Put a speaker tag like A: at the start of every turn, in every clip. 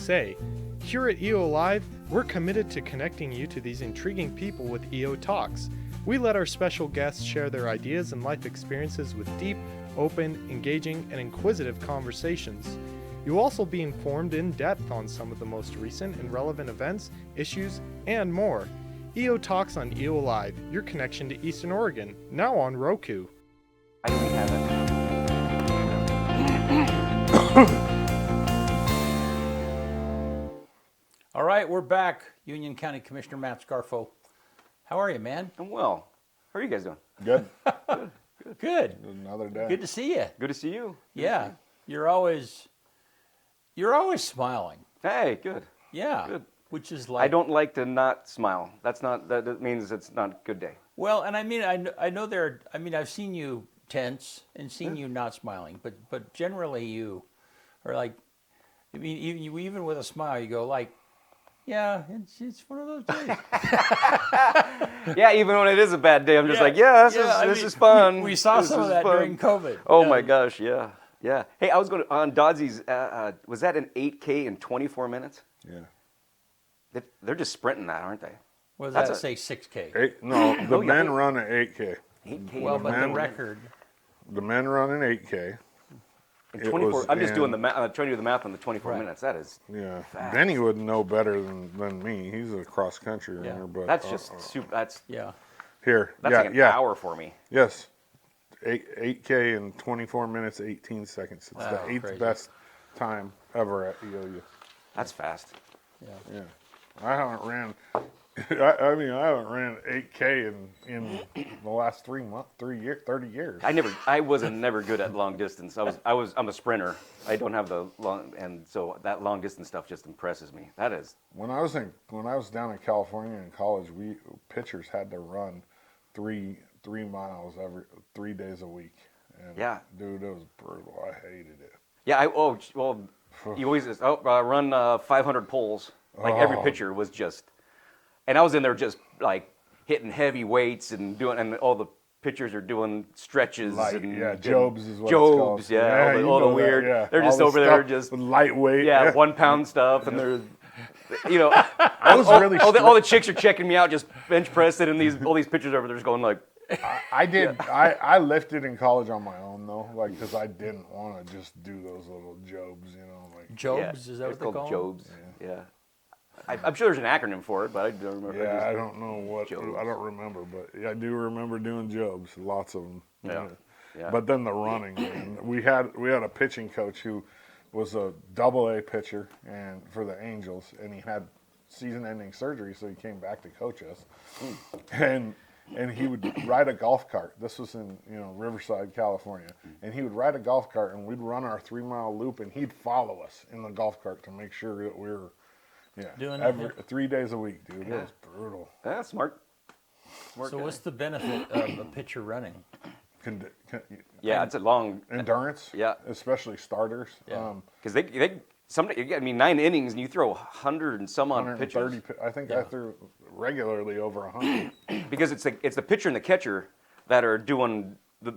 A: say. Here at EO Live, we're committed to connecting you to these intriguing people with EO Talks. We let our special guests share their ideas and life experiences with deep, open, engaging, and inquisitive conversations. You'll also be informed in depth on some of the most recent and relevant events, issues, and more. EO Talks on EO Live, your connection to Eastern Oregon, now on Roku.
B: Why do we have it?
C: All right, we're back. Union County Commissioner Matt Scarfo. How are you, man?
B: I'm well. How are you guys doing?
D: Good.
C: Good.
D: Another day.
C: Good to see you.
B: Good to see you.
C: Yeah. You're always you're always smiling.
B: Hey, good.
C: Yeah.
B: Good.
C: Which is like
B: I don't like to not smile. That's not. That, that means it's not a good day.
C: Well, and I mean I know, I know there are, I mean I've seen you tense and seen you not smiling, but but generally you are like I mean even you even with a smile you go like yeah, it's it's one of those days.
B: Yeah, even when it is a bad day, I'm just like, yeah, this is
C: I
B: this
C: mean,
B: is fun.
C: We saw
B: This
C: some of
B: is
C: that
B: fun.
C: during COVID.
B: Oh
C: Yeah.
B: my gosh, yeah, yeah. Hey, I was going to, on Dodsey's. Uh, uh, was that an 8K in 24 minutes?
D: Yeah.
B: They- They're just sprinting that, aren't they?
C: What does
B: That's
C: that
B: a-
C: say? Six K.
D: Eight, no, the
B: Oh, yeah.
D: men run an 8K.
B: 8K.
C: Well, but the
D: man-
C: record.
D: The men run an 8K.
B: in
D: it
B: 24.
D: was
B: I'm just doing
D: in-
B: the math. Uh, trying to do the math on the 24 minutes. That is.
D: Yeah.
B: Facts.
D: Benny would know better than, than me. He's a cross country
C: Yeah.
D: runner, but
B: That's
D: uh,
B: just
D: uh,
B: super. That's
C: Yeah.
D: here.
B: that's
D: yeah,
B: like an
D: yeah.
B: hour for me.
D: Yes. Eight eight K in twenty four minutes, eighteen seconds. It's
C: Wow,
B: Ah,
D: the eighth
C: crazy.
D: best time ever at EOU.
B: That's fast.
C: Yeah.
D: Yeah. I haven't ran I, I mean I haven't ran eight K in in the last three month three year thirty years.
B: I never, I wasn't never good at long distance. I was, I was, I'm a sprinter. I don't have the long, and so that long distance stuff just impresses me. That is,
D: When I was in when I was down in California in college, we pitchers had to run three three miles every three days a week. And
B: Yeah.
D: dude, it was brutal. I hated it.
B: yeah. I oh j- well, you always just, oh uh, run uh, 500 poles. Like every
D: Oh.
B: pitcher was just, and I was in there just like hitting heavy weights and doing, and all the pitchers are doing stretches
D: Like,
B: and
D: yeah,
B: and
D: Jobs is what it's called.
B: Jobs, yeah, all the,
D: you
B: all the
D: know that,
B: weird.
D: yeah.
B: They're
D: All
B: just
D: the
B: over there
D: stuff
B: just
D: lightweight.
B: yeah, one pound stuff, and they're, you know,
D: I was really
B: all the, all the chicks are checking me out, just bench pressing, and these all these pictures over there just going like,
D: I did. I, I lifted in college on my own though, like because I didn't want to just do those little jobs, you know. Like
C: Jobs
B: yeah,
C: is that
B: it's
C: what they
B: called
C: call 'em?
B: Jobs. Yeah, I, I'm sure there's an acronym for it, but I don't remember.
D: yeah, I
B: just-
D: don't know what
B: Jobs.
D: I don't remember, but yeah, I do remember doing jobs, lots of them.
B: Yeah, yeah.
D: But then the running, man. we had we had a pitching coach who was a double A pitcher and for the Angels, and he had season-ending surgery, so he came back to coach us,
B: Hmm.
D: and. And he would ride a golf cart. This was in you know Riverside, California. And he would ride a golf cart, and we'd run our three mile loop, and he'd follow us in the golf cart to make sure that we were, yeah,
C: Doing it,
D: every,
C: yeah.
D: three days a week, dude. It was brutal.
B: yeah, eh, smart. Smart
C: So
B: guy.
C: what's the benefit of a pitcher running?
D: Con- con-
B: yeah, it's a long
D: endurance,
B: Yeah.
D: especially starters.
C: Yeah.
D: Um,
B: because they they somebody I mean nine innings and you throw hundred and some odd
D: 130.
B: pitches
D: pi- I think
C: Yeah.
D: I threw regularly over 100.
B: because it's the it's the pitcher and the catcher that are doing the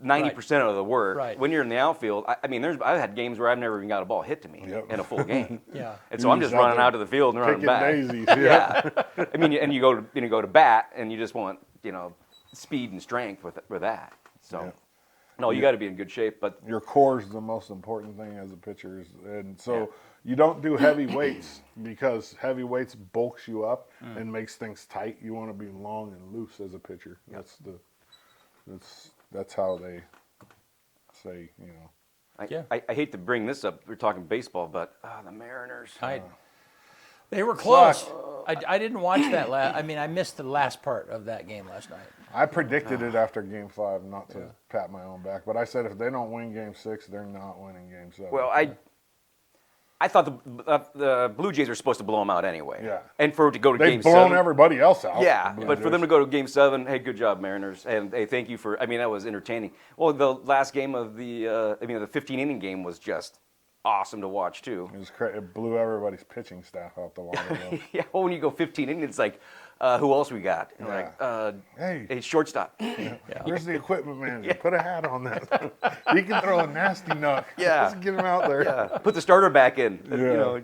B: ninety percent of the work.
C: Right.
B: When you're in the outfield, I, I mean, there's I've had games where I've never even got a ball hit to me
D: Yep.
B: in a full game.
C: Yeah.
B: And so I'm
D: You're
B: just
D: out
B: running
D: there
B: out to the field and running
D: Picking
B: back.
D: daisies. Yeah.
B: Yeah. I mean, and you go to you know, go to bat, and you just want you know speed and strength with with that. So,
D: Yeah.
B: no, you got to be in good shape. But
D: Your core is the most important thing as a pitcher, is- and so you don't do heavy weights because heavy weights bulks you up and makes things tight. You want to be long and loose as a pitcher. That's the that's that's how they say you know.
B: I,
C: Yeah.
B: I, I hate to bring this up. We're talking baseball, but ah, the Mariners.
C: I they were close. I, I didn't watch that last. I mean, I missed the last part of that game last night.
D: I predicted
B: Ah.
D: it after Game Five, not to pat my own back, but I said if they don't win Game Six, they're not winning Game Seven.
B: well, I. I thought the, uh, the Blue Jays were supposed to blow them out anyway.
D: Yeah.
B: And for it to go to game
D: they've blown
B: seven.
D: everybody else out.
B: Yeah,
D: Blue
B: but for them to
D: Jays.
B: go to Game Seven, hey, good job, Mariners, and hey, thank you for. I mean, that was entertaining. Well, the last game of the, uh, I mean, the 15 inning game was just awesome to watch too.
D: it, was cra- it blew everybody's pitching staff out the water. though.
B: Yeah, well, when you go 15 innings, it's like, uh, who else we got? And we're
D: Yeah.
B: Like, uh,
D: Hey.
B: hey, shortstop.
D: Where's the equipment manager? Put a hat on that. he can throw a nasty knock.
B: Yeah.
D: let's get him out there.
B: yeah, put Uh, the starter back in. uh, You
D: Yeah.
B: know,